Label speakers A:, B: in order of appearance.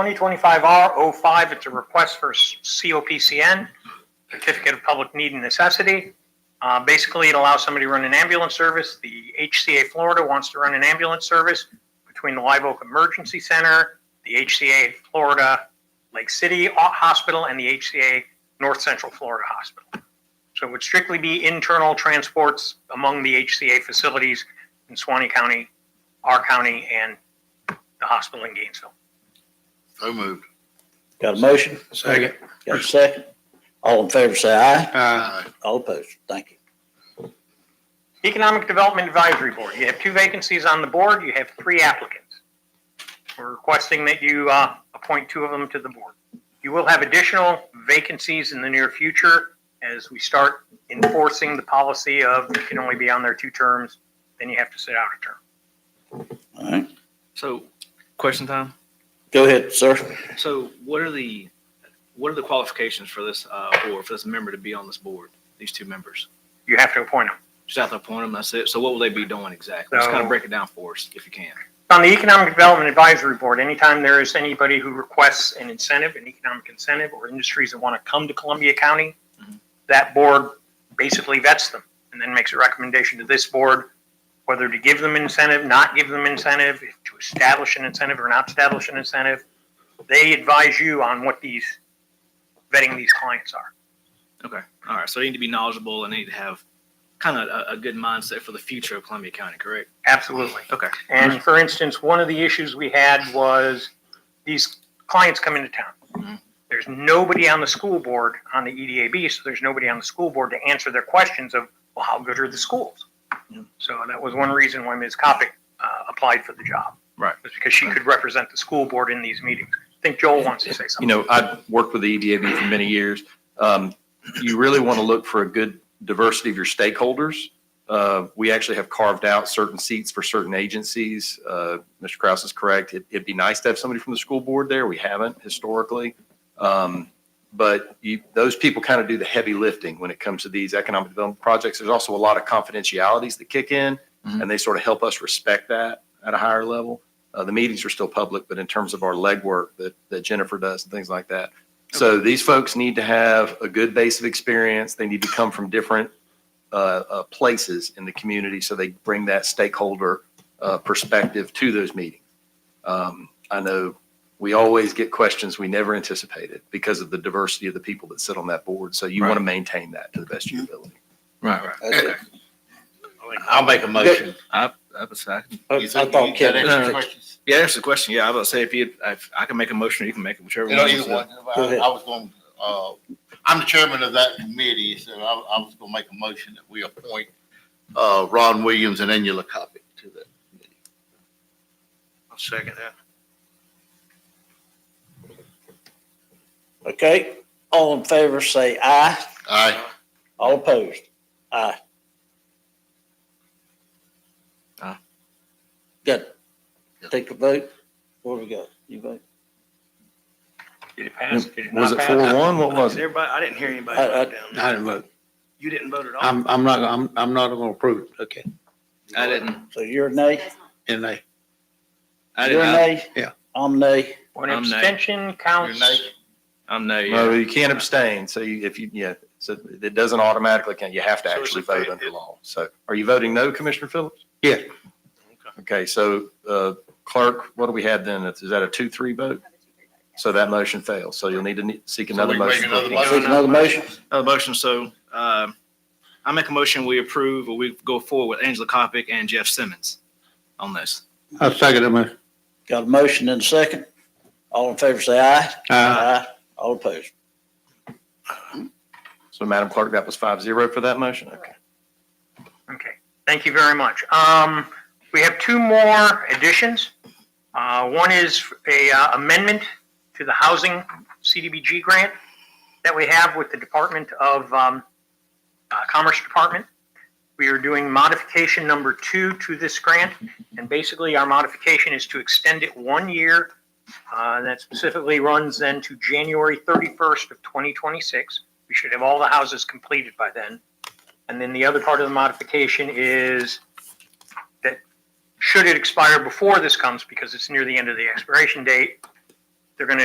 A: 2025R05, it's a request for s- COPCN, Certificate of Public Need and Necessity. Uh, Basically, it allows somebody to run an ambulance service. The HCA Florida wants to run an ambulance service between the Live Oak Emergency Center, the HCA Florida Lake City O- Hospital, and the HCA North Central Florida Hospital. So it would strictly be internal transports among the HCA facilities in Swanee County, our county, and the hospital in Gainesville.
B: So moved.
C: Got a motion?
B: Second.
C: Got a second? All in favor, say aye.
B: Aye.
C: All opposed. Thank you.
A: Economic Development Advisory Board, you have two vacancies on the board, you have three applicants. We're requesting that you uh, appoint two of them to the board. You will have additional vacancies in the near future as we start enforcing the policy of you can only be on there two terms, then you have to sit out a term.
C: All right.
D: So, question time.
C: Go ahead, sir.
D: So, what are the what are the qualifications for this uh, board for this member to be on this board? These two members,
A: You have to appoint them.
D: just have to appoint them. That's it. So, what will they be doing exactly? Just kind
A: So-
D: of break it down for us, if you can.
A: On the Economic Development Advisory Board, anytime there is anybody who requests an incentive, an economic incentive, or industries that want to come to Columbia County,
D: Mhm.
A: that board basically vets them and then makes a recommendation to this board whether to give them incentive, not give them incentive, if to establish an incentive or not establish an incentive. They advise you on what these, vetting these clients are.
D: Okay. All right. So, they need to be knowledgeable and they need to have kind of a, a good mindset for the future of Columbia County. Correct.
A: Absolutely.
D: Okay.
A: And for instance, one of the issues we had was these clients come into town.
E: Mm-hmm.
D: Mhm.
A: There's nobody on the school board on the E EDAB, so there's nobody on the school board to answer their questions of, well, how good are the schools?
E: Mm-hmm.
D: Yeah.
A: So that was one reason why Ms. Kopic, uh, applied for the job.
E: Right.
A: Was because she could represent the school board in these meetings. I think Joel wants to say
E: You
A: something.
E: know, I've worked with the E EDAB for many years. Um, You really want to look for a good diversity of your stakeholders. Uh, We actually have carved out certain seats for certain agencies. Uh, Mr. Kraus is correct. It- It'd be nice to have somebody from the school board there. We haven't historically. Um, But you, those people kind of do the heavy lifting when it comes to these economic development projects. There's also a lot of confidentialities that kick in, and they sort of help us respect that at a higher level. Uh, the meetings are still public, but in terms of our legwork that, that Jennifer does and things like that. So these folks need to have a good base of experience. They need to come from different uh, uh, places in the community, so they bring that stakeholder uh, perspective to those meetings. Um, I know we always get questions we never anticipated because of the diversity of the people that sit on that board. So you want to maintain that to the best of your ability.
D: Right. Right.
C: That's it.
B: I'll make a motion.
D: I, I, was- I can,
C: I
B: You
C: I
B: think
C: thought
B: you got
C: Kevin.
D: answers
B: any
D: No, no, no.
B: questions?
D: yeah, that's the question. Yeah, I was about to say if you if I can make a motion, or you can make it whichever
B: You know,
D: you
B: either one.
D: want.
C: Go ahead.
B: I was going, uh, I'm the chairman of that committee, so I, I was gonna make a motion that we appoint, uh, Ron Williams and Angela Copic to that.
F: I'll second that.
C: Okay. All in favor, say aye.
B: Aye.
C: All opposed. Aye.
D: Aye.
C: Good. Take a vote. What do we got? You vote?
A: Did it pass? Did it not
E: Was it
A: pass?
E: four one? What was it?
F: Everybody, I didn't hear anybody
C: I- I-
F: vote down there.
G: I didn't vote.
F: You didn't vote at all?
G: I'm, I'm not, I'm, I'm not gonna approve it. Okay.
D: I didn't.
C: So you're a nay?
G: And they,
D: I
C: You're a
D: didn't.
C: nay?
G: Yeah.
C: I'm nay.
A: When
D: I'm nay.
A: abstention
B: You're
A: counts,
B: naked.
D: I'm no. Yeah.
E: No, you can't abstain. So you, if you, yeah, so it doesn't automatically count. You have to
F: So it's
E: actually
F: a-
E: vote under law. So are you voting no, Commissioner Phillips?
G: yeah,
E: Okay, so uh, clerk, what do we have then? Is that a two, three vote? So that motion fails. So you'll need to ne- seek
B: So
E: another
B: we make
E: motion.
B: another
E: for-
B: motion?
C: Take another motion?
D: Another motion, so uh, I make a motion, we approve, or we go forward with Angela Kopic and Jeff Simmons on this.
G: I'll second it. man.
C: Got a motion and a second. All in favor, say aye.
G: Aye.
C: All opposed.
E: So Madam Clerk, that was five zero for that motion? Okay.
A: Okay, thank you very much. Um, we have two more additions. Uh, one is a uh, amendment to the housing CDBG grant that we have with the Department of, um, uh, Commerce Department. We are doing modification number two to this grant, and basically our modification is to extend it one year. Uh, and that specifically runs then to January thirty-first of twenty twenty-six. We should have all the houses completed by then. And then the other part of the modification is that should it expire before this comes, because it's near the end of the expiration date, they're going to